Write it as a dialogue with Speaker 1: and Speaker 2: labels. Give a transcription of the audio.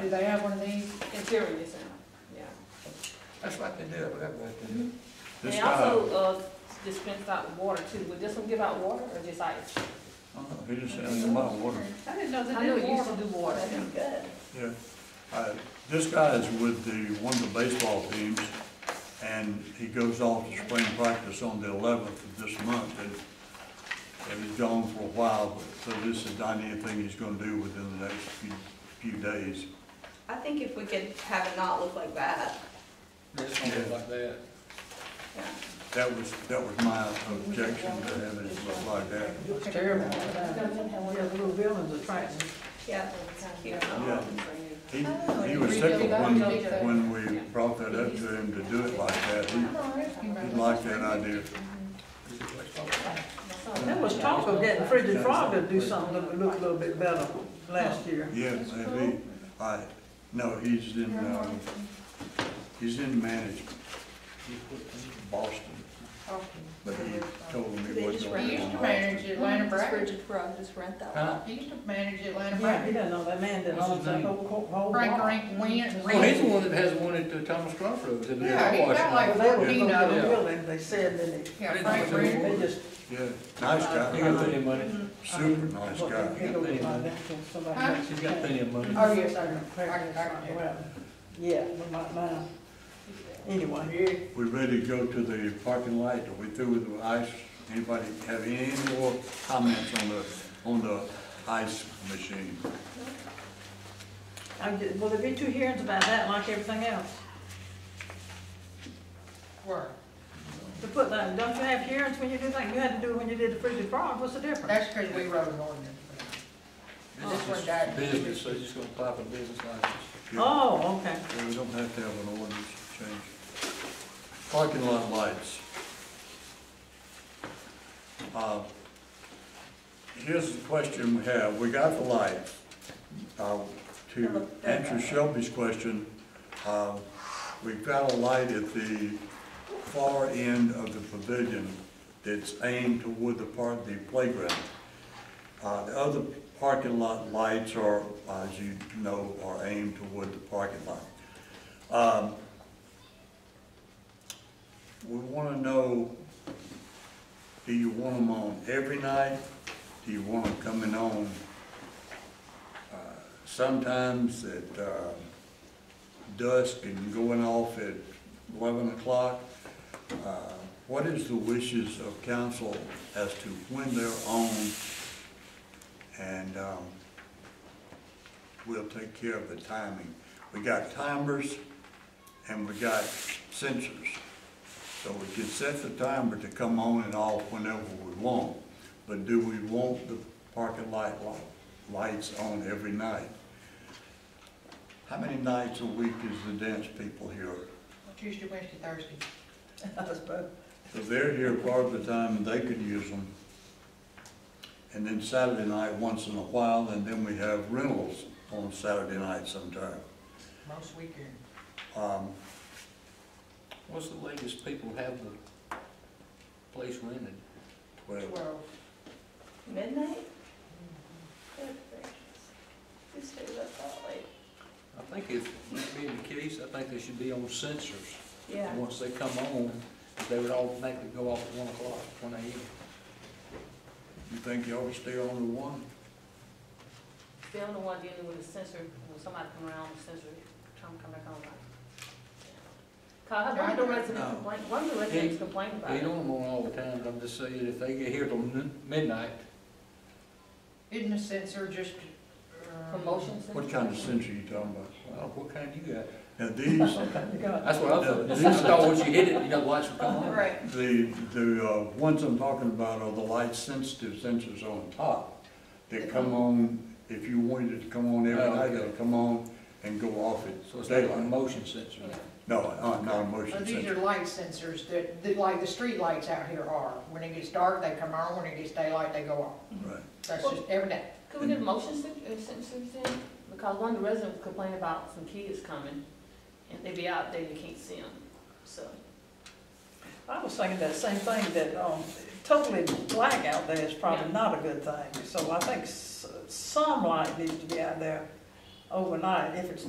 Speaker 1: do they have one of these?
Speaker 2: In theory, yes, sir. yeah.
Speaker 3: That's what they do, whatever they
Speaker 4: Hmm?
Speaker 3: do.
Speaker 2: They also, uh, dispense out water too. Would this one give out water or just ice?
Speaker 5: He just sending them out water.
Speaker 6: I didn't know that
Speaker 2: I know
Speaker 6: it
Speaker 2: it used
Speaker 6: was
Speaker 2: to do water.
Speaker 6: That'd be good.
Speaker 5: Yeah. Uh, This guy is with the, one of the baseball teams, and he goes off to spring practice on the eleventh of this month, and, and he's gone for a while, but, so this is not anything he's gonna do within the next few, few days.
Speaker 6: I think if we could have it not look like that,
Speaker 7: It's gonna look like that.
Speaker 6: yeah.
Speaker 5: That was, that was my objection to having it look like that.
Speaker 1: It's terrible. We have little buildings that trash.
Speaker 6: yeah, that's cute.
Speaker 5: Yeah. He, he was tickled when, when we brought that up to him to do it like that. He, he liked that idea.
Speaker 1: There was talk of getting Frigid Frog to do something that would look a little bit better last year.
Speaker 5: Yeah, maybe. I, no, he's in, uh, he's in management. Boston, but he told me
Speaker 6: They
Speaker 5: what.
Speaker 6: just
Speaker 5: going
Speaker 4: He used to
Speaker 5: on.
Speaker 4: manage Atlanta
Speaker 6: Just
Speaker 4: Braves.
Speaker 6: Bridget Frog, just rent that
Speaker 7: Huh?
Speaker 6: one.
Speaker 4: He used to manage Atlanta
Speaker 1: Yeah, he
Speaker 4: Braves.
Speaker 1: doesn't know that man that owns that whole, whole. whole
Speaker 4: Frank
Speaker 1: block.
Speaker 4: Rank went.
Speaker 7: Well, he's the one that has the one at uh, Thomas Crawford, that they
Speaker 4: Yeah, he
Speaker 7: wash
Speaker 4: got
Speaker 7: now.
Speaker 4: like
Speaker 1: Well, they were
Speaker 4: fourteen
Speaker 1: gonna
Speaker 4: of
Speaker 1: build a
Speaker 4: them.
Speaker 1: building, they said, then they,
Speaker 4: Yeah,
Speaker 7: I didn't
Speaker 4: Frank
Speaker 7: know
Speaker 4: Rank.
Speaker 1: they just.
Speaker 5: Yeah, nice
Speaker 7: They got plenty
Speaker 5: guy,
Speaker 7: of money.
Speaker 5: super nice
Speaker 1: Well, they- they
Speaker 5: guy.
Speaker 1: go by that till somebody
Speaker 4: Huh?
Speaker 1: else
Speaker 7: She's got
Speaker 1: can.
Speaker 7: plenty of money.
Speaker 1: Oh, yes, I know.
Speaker 4: I- I-
Speaker 1: Well, Yeah, but my, my, anyway.
Speaker 5: We ready to go to the parking lot, Are we through with the ice? Anybody have any more comments on the, on the ice machine?
Speaker 1: I'm ju- Will there be two hearings about that like everything else?
Speaker 4: Were.
Speaker 1: To put that, don't you have hearings when you do that? You had to do it when you did the Frigid Frog, what's the difference?
Speaker 4: That's because we wrote an ordinance. This one died.
Speaker 7: Business, so he's just gonna apply for business license.
Speaker 5: Yeah,
Speaker 1: Oh, okay.
Speaker 5: We don't have to have an ordinance change. Parking lot lights. Uh, Here's the question we have, we got the lights. Uh, To answer Shelby's question, uh, we've got a light at the far end of the pavilion that's aimed toward the part, the playground. Uh, The other parking lot lights are, as you know, are aimed toward the parking lot. Um, We want to know, do you want them on every night? Do you want them coming on uh, sometimes at uh, dusk and going off at 11 o'clock? Uh, What is the wishes of council as to when they're on and um, we'll take care of the timing. We got timers and we got sensors. So we can set the timer to come on and off whenever we want, but do we want the parking light li- lights on every night? How many nights a week is the dance people here?
Speaker 4: Tuesday, Wednesday, Thursday.
Speaker 5: So they're here part of the time, and they could use them. And then Saturday night, once in a while, and then we have rentals on Saturday night sometime.
Speaker 4: Most weekend.
Speaker 5: Um,
Speaker 7: What's the latest people have the place rented?
Speaker 5: well,
Speaker 4: Twelve.
Speaker 6: Midnight? Good gracious. Who stays up that late?
Speaker 7: I think if, being the case, I think they should be on sensors.
Speaker 6: Yeah.
Speaker 7: And Once they come on, they would automatically go off at one o'clock, one AM.
Speaker 5: You think you ought to stay on the one?
Speaker 2: They're the one dealing with the sensor, when somebody come around, the sensor, trying to come back on. Cause I heard one of the residents
Speaker 5: No.
Speaker 2: complain, one of the residents complained about
Speaker 7: They
Speaker 2: it.
Speaker 7: don't want all the time, but I'm just saying, if they get here till noon- midnight,
Speaker 4: Isn't the sensor just? um,
Speaker 2: Promotion sensor.
Speaker 5: What kind of sensor you talking about?
Speaker 7: well, what kind you got?
Speaker 5: Now, these,
Speaker 7: That's what I thought, I thought once you hit it, you know, the lights would come on.
Speaker 6: Right.
Speaker 5: the, the uh, ones I'm talking about are the light-sensitive sensors on top that come
Speaker 4: Uh-huh.
Speaker 5: on, if you wanted it to come on every
Speaker 7: Oh,
Speaker 5: night,
Speaker 7: okay.
Speaker 5: it'll come on and go off
Speaker 7: So
Speaker 5: at
Speaker 7: it's like a
Speaker 5: daylight.
Speaker 7: motion sensor.
Speaker 2: Yeah.
Speaker 5: No, uh, not a motion
Speaker 4: Well,
Speaker 5: sensor.
Speaker 4: these are light sensors that, that like the street lights out here are. When it gets dark, they come on, when it gets daylight, they go off.
Speaker 5: Right.
Speaker 4: That's just every day.
Speaker 2: Could we get a motion sen- uh, sensors in? Because one of the residents complained about some kids coming, and they be out there, you can't see them, so.
Speaker 1: I was thinking that same thing, that, um, totally black out there is probably
Speaker 2: Yeah.
Speaker 1: not a good thing. So I think s- some light needs to be out there overnight, if it's